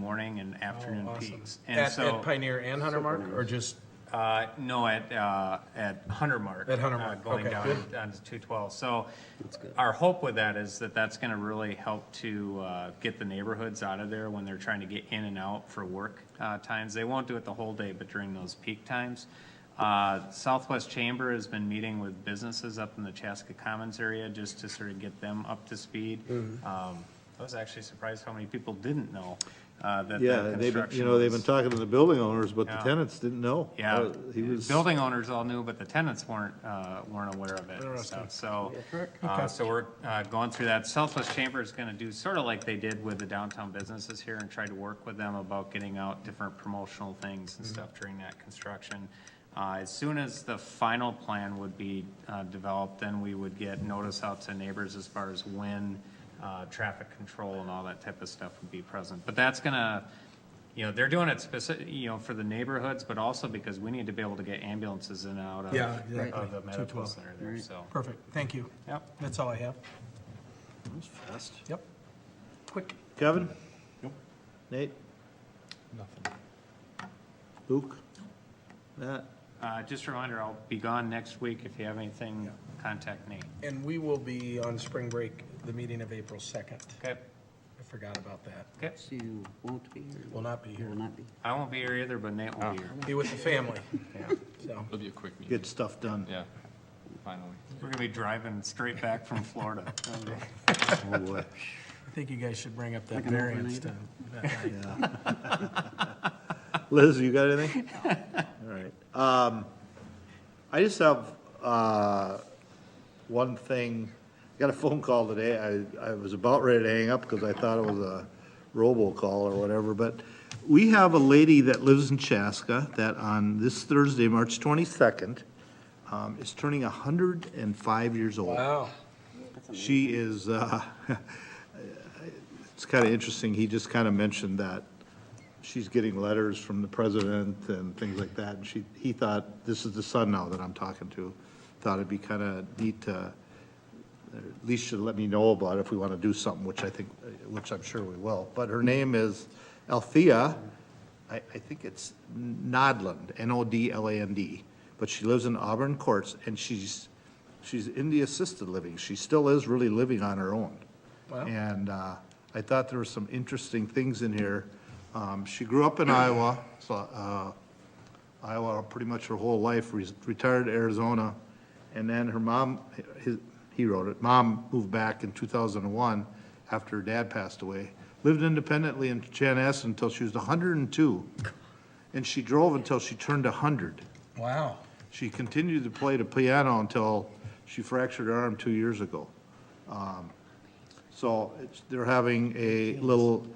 morning and afternoon Oh, awesome. peaks. And At, so, at Pioneer and Hunter Mark, or just, uh, no, at, uh, at Hunter Mark. At Hunter uh, Mark, Going okay, down good. down to two twelve. So our hope with that is that that's gonna really help to, uh, get the neighborhoods out of there when they're trying to get in and out for work, uh, times. They won't do it the whole day, but during those peak times. Uh, Southwest Chamber has been meeting with businesses up in the Chaska Commons area just to sort of get them up to speed. Mm-hmm. Um, I was actually surprised how many people didn't know, uh, that Yeah, that they've, been- construction you know, they've been was- talking to the building owners, but the Yeah. tenants didn't know. yeah, Uh, He was, building owners all knew, but the tenants weren't, uh, weren't aware of it, and Interesting. stuff. so. Uh, so we're, uh, going through that. Southwest Chamber is gonna do sort of like they did with the downtown businesses here and try to work with them about getting out different promotional things and stuff during that construction. Uh, as soon as the final plan would be, uh, developed, then we would get notice out to neighbors as far as when, uh, traffic control and all that type of stuff would be present. But that's gonna, you know, they're doing it specific, you know, for the neighborhoods, but also because we need to be able to get ambulances in and out of, Yeah, exactly. of the medical 212. center there, so. perfect, thank you. Yep. That's all I have. Yep. Quick. Kevin? Nate? Nothing. Luke? Matt? Uh, just a reminder, I'll be gone next week. If you have anything, contact Nate. And we will be on spring break, the meeting of April 2nd. Okay, I forgot about that. okay. So you won't be here? Will not be here. Will not be. I won't be here either, but Nate will be here. Be with the family, Yeah. so. It'll be a quick meeting. Get stuff done. Yeah, finally. We're gonna be driving straight back from Florida. Oh, boy. I think you guys should bring up that Like an variance to. that night. Liz, you got anything? All right. Um, I just have, uh, one thing. I Got a phone call today. I, I was about ready to hang up because I thought it was a robocall or whatever, but we have a lady that lives in Chaska that on this Thursday, March twenty-second, um, is turning hundred and five years old. Wow, She is, uh, it's kind of interesting, he just kind of mentioned that she's getting letters from the president and things like that, and she, he thought, this is the son now that I'm talking to, thought it'd be kind of neat to, or at least should let me know about if we want to do something, which I think, which I'm sure we will. But her name is Althea, I, I think it's Nodland, N-O-D-L-A-N-D. But she lives in Auburn Courts, and she's, she's in the assisted living. She still is really living on her own. Wow. And uh, I thought there were some interesting things in here. Um, She grew up in Iowa, so, uh, Iowa pretty much her whole life, re- retired to Arizona. And then her mom, his- he wrote it, mom moved back in 2001 after her dad passed away. Lived independently in Chanhassen until she was 102. And she drove until she turned 100. wow. She continued to play the piano until she fractured her arm two years ago. Um, So it's, they're having a little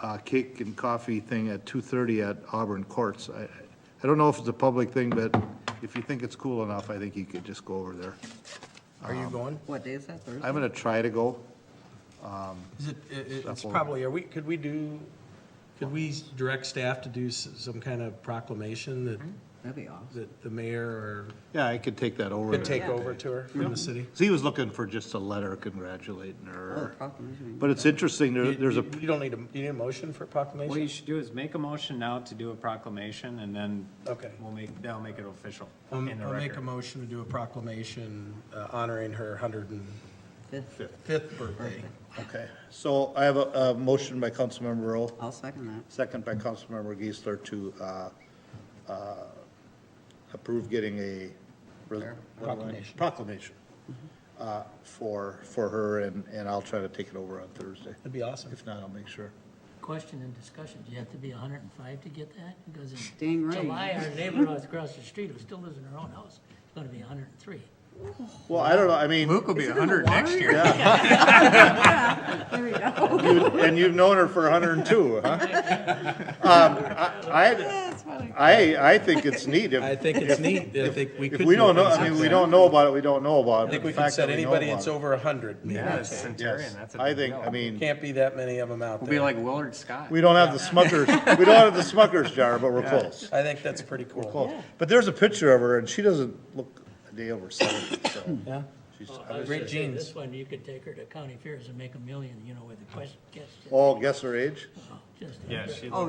uh, cake and coffee thing at 2:30 at Auburn Courts. I, I don't know if it's a public thing, but if you think it's cool enough, I think you could just go over there. Are you going? What day is that, Thursday? I'm gonna try to go. Is it, it- it- it's Shuffle. probably, are we, could we do, could we direct staff to do s- some kind of proclamation that, That'd be awesome. that the mayor Yeah, I could take that or over. could take over to her from the city? So he was looking for just a letter congratulating her. Oh, Proclamation. But it's interesting, there, there's a, Oh. You don't need a, you need a motion for What you proclamation? should do is make a motion now to do a proclamation and then Okay. we'll make, they'll make it official I'll in the Um, I'll make a record. motion to do a proclamation uh, honoring her hundred and Fifth. fifth birthday. okay. So I have a, a motion by Councilmember Rowe. I'll second that. Second by Councilmember Geisler to uh, uh, approve getting a. res- what am I- Proclamation. Mm-hmm. Proclamation uh, for, for her, and, and I'll try to take it over on Thursday. That'd be awesome. If not, I'll make sure. Question and discussion, do you have to be hundred and five to get that? Because Dang in right. July, our neighbor across the street who still lives in her own house is gonna be hundred and three. Well, I don't know, I mean, Luke will be hundred next year. There we go. you- and you've known her for 102, huh? Um, I, I, I think it's neat. I If think it's neat. I think we could. if we do don't know, things I mean, like we that. don't know about it, we don't know about it. I think but we the can fact set that we know anybody about that's it- over a hundred. Yeah, it's Centurion, Yes, that's a I big think, deal. I mean. Can't be that many of them out We'll be there. like Willard Scott. We don't have the Smuckers, we don't have the Smuckers jar, but we're close. I think that's pretty cool. Close. But there's a picture of her and she doesn't look a day over seventy, so. Yeah. she's- I was Great gonna say, genes. This one, you could take her to county fairs and make a million, you know, with the question, guess, Oh, guess her age? just. Yeah, she Oh,